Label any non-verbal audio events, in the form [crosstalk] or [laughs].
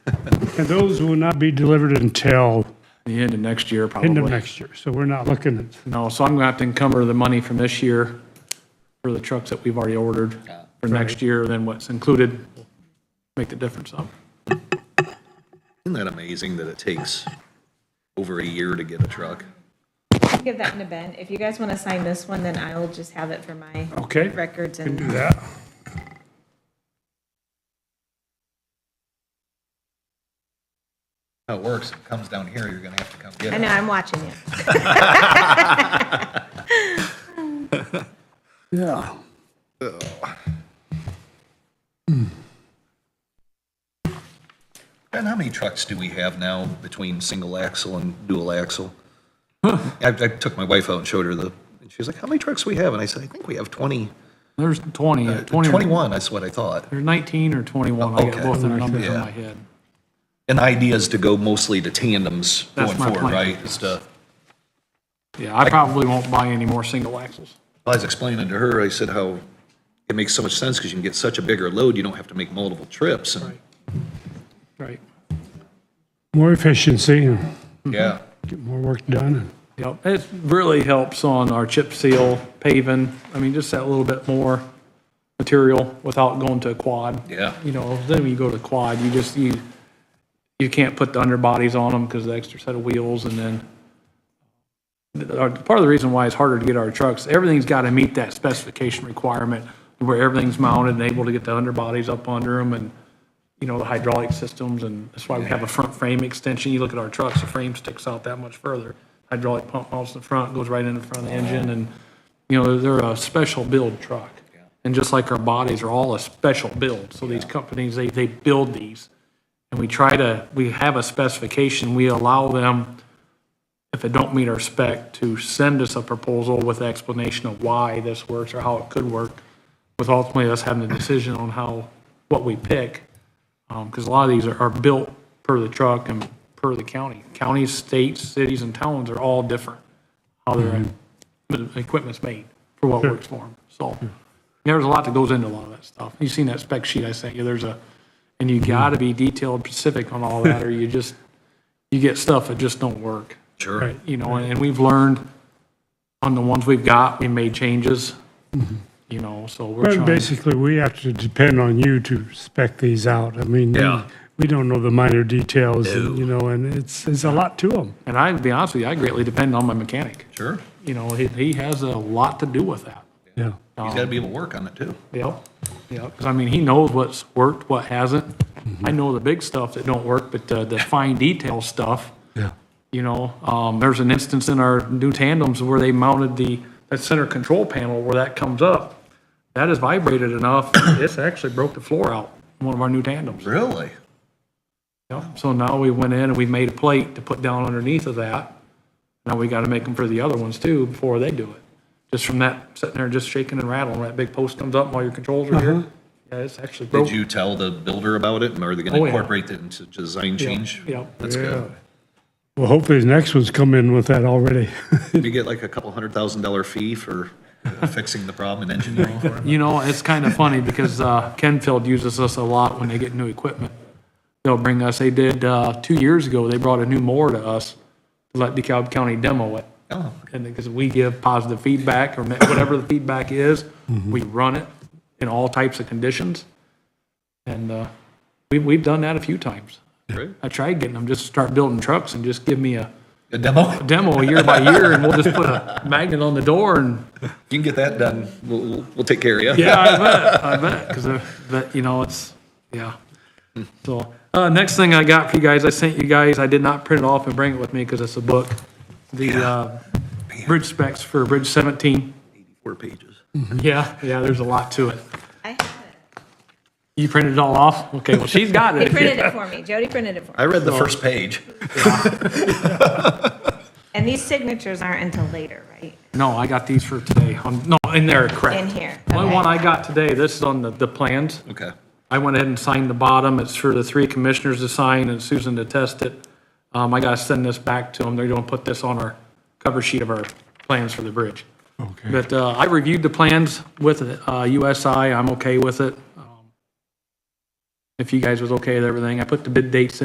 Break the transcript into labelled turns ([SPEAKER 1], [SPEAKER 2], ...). [SPEAKER 1] And those will not be delivered until
[SPEAKER 2] the end of next year, probably.
[SPEAKER 1] end of next year. So we're not looking at
[SPEAKER 2] No, so I'm going to have to encumber the money from this year for the trucks that we've already ordered for next year, then what's included, make the difference up.
[SPEAKER 3] Isn't that amazing that it takes over a year to get a truck?
[SPEAKER 4] Give that to Ben. If you guys want to sign this one, then I'll just have it for my
[SPEAKER 1] Okay.
[SPEAKER 4] records
[SPEAKER 1] Can do
[SPEAKER 4] and
[SPEAKER 1] that.
[SPEAKER 3] How it works, it comes down here, you're gonna have to come
[SPEAKER 4] I
[SPEAKER 3] get
[SPEAKER 4] know
[SPEAKER 3] it.
[SPEAKER 4] I'm watching you.
[SPEAKER 1] Yeah.
[SPEAKER 3] And how many trucks do we have now between single axle and dual axle? I, I took my wife out and showed her the, and she was like, how many trucks we have? And I said, I think we have 20,
[SPEAKER 2] There's 20, uh, 20 or-
[SPEAKER 3] 21, that's what I thought.
[SPEAKER 2] There's 19 or 21, I got
[SPEAKER 3] Okay.
[SPEAKER 2] both of the numbers in
[SPEAKER 3] Yeah.
[SPEAKER 2] my head.
[SPEAKER 3] And the idea is to go mostly to tandems
[SPEAKER 2] That's
[SPEAKER 3] going
[SPEAKER 2] my
[SPEAKER 3] forward,
[SPEAKER 2] plan.
[SPEAKER 3] right? Is to,
[SPEAKER 2] Yeah, I probably won't buy any more single axles.
[SPEAKER 3] I was explaining to her, I said how it makes so much sense because you can get such a bigger load, you don't have to make multiple trips and,
[SPEAKER 2] Right.
[SPEAKER 1] More efficiency and
[SPEAKER 3] yeah.
[SPEAKER 2] Mm-hmm.
[SPEAKER 1] get more work done.
[SPEAKER 2] Yep, it really helps on our chip seal paving. I mean, just that little bit more material without going to a quad.
[SPEAKER 3] Yeah.
[SPEAKER 2] You know, then when you go to quad, you just, you, you can't put the underbodies on them because of the extra set of wheels and then the- our- part of the reason why it's harder to get our trucks, everything's got to meet that specification requirement where everything's mounted and able to get the underbodies up under them and, you know, the hydraulic systems, and that's why we have a front frame extension. You look at our trucks, the frame sticks out that much further. Hydraulic pump mounts in the front, goes right in the front of the engine, and, you know, they're a special build truck. And just like our bodies are all a special build, so these companies, they, they build these. And we try to, we have a specification, we allow them, if it don't meet our spec, to send us a proposal with explanation of why this works or how it could work, with ultimately us having the decision on how, what we pick. Because a lot of these are, are built per the truck and per the county. Counties, states, cities, and towns are all different, how their equip- equipment's made for what works for them. So there's a lot that goes into a lot of that stuff. You've seen that spec sheet I sent you, there's a, and you gotta be detailed specific on all that, or you just, you get stuff that just don't work.
[SPEAKER 3] Sure.
[SPEAKER 2] You know, and we've learned on the ones we've got, we made changes, you know, so we're
[SPEAKER 1] But
[SPEAKER 2] trying.
[SPEAKER 1] basically, we have to depend on you to spec these out. I mean,
[SPEAKER 3] Yeah.
[SPEAKER 1] we don't know the minor details, and, you know, and it's, it's a lot to them.
[SPEAKER 2] And I, to be honest with you, I greatly depend on my mechanic.
[SPEAKER 3] Sure.
[SPEAKER 2] you know, he, he has a lot to do with that. Um,
[SPEAKER 1] Yeah.
[SPEAKER 3] He's gotta be able to work on it too.
[SPEAKER 2] Yep. Yep. Cause I mean, he knows what's worked, what hasn't. I know the big stuff that don't work, but uh, the, the fine detail stuff,
[SPEAKER 1] Yeah.
[SPEAKER 2] you know, um, there's an instance in our new tandems where they mounted the, that center control panel where that comes up. That is vibrated enough. It's actually broke the floor out, in one of our new tandems.
[SPEAKER 3] Really?
[SPEAKER 2] Yep. So now we went in and we made a plate to put down underneath of that. Now we gotta make them for the other ones too before they do it. Just from that, sitting there just shaking and rattling, that big post comes up while your controls are here. Yeah, it's actually broke.
[SPEAKER 3] Uh-huh. Did you tell the builder about it, and are they
[SPEAKER 2] Oh,
[SPEAKER 3] gonna
[SPEAKER 2] yeah.
[SPEAKER 3] incorporate it into design change?
[SPEAKER 2] Yep.
[SPEAKER 3] That's good.
[SPEAKER 1] Well, hopefully the next ones come in with that already. [laughs]
[SPEAKER 3] Did you get like a couple hundred thousand dollar fee for [laughs] fixing the problem and engineering
[SPEAKER 2] [laughs]
[SPEAKER 3] for it?
[SPEAKER 2] You know, it's kind of funny because uh, Kenfield uses us a lot when they get new equipment. They'll bring us, they did, uh, two years ago, they brought a new mower to us, to let DeKalb County demo it.
[SPEAKER 3] Oh,
[SPEAKER 2] And because we give positive feedback or whatever the feedback is, we run it in all types of conditions. And uh, we, we've done that a few times.
[SPEAKER 3] great.
[SPEAKER 2] I tried getting them just to start building trucks and just give me a
[SPEAKER 3] A demo? You
[SPEAKER 2] demo year by year and we'll just put a magnet on the door and,
[SPEAKER 3] can get that done. We'll, we'll, we'll take care of you.
[SPEAKER 2] yeah, I bet, I bet, because, but, you know, it's, yeah. So, uh, next thing I got for you guys, I sent you guys, I did not print it off and bring it with me because it's a book. The uh, bridge specs for Bridge 17.
[SPEAKER 3] Four pages.
[SPEAKER 2] Yeah, yeah, there's a lot to it.
[SPEAKER 4] I have it.
[SPEAKER 2] You printed it all off? Okay, well, she's got
[SPEAKER 3] [laughs]
[SPEAKER 4] [laughs] He
[SPEAKER 2] it.
[SPEAKER 4] printed it for me. Jody printed it for
[SPEAKER 3] I
[SPEAKER 4] me.
[SPEAKER 3] read the first page.
[SPEAKER 4] And these signatures aren't until later, right?
[SPEAKER 2] No, I got these for today. Um, No, in there, correct.
[SPEAKER 4] In here,
[SPEAKER 2] Only
[SPEAKER 4] okay.
[SPEAKER 2] one I got today, this is on the, the plans.
[SPEAKER 3] Okay.
[SPEAKER 2] I went ahead and signed the bottom. It's for the three commissioners to sign and Susan to test it. Um, I gotta send this back to them. They're gonna put this on our cover sheet of our plans for the bridge.
[SPEAKER 1] Okay.
[SPEAKER 2] But, uh, I reviewed the plans with, uh, USI. I'm okay with it. Um, If you guys was okay with everything, I put the bid dates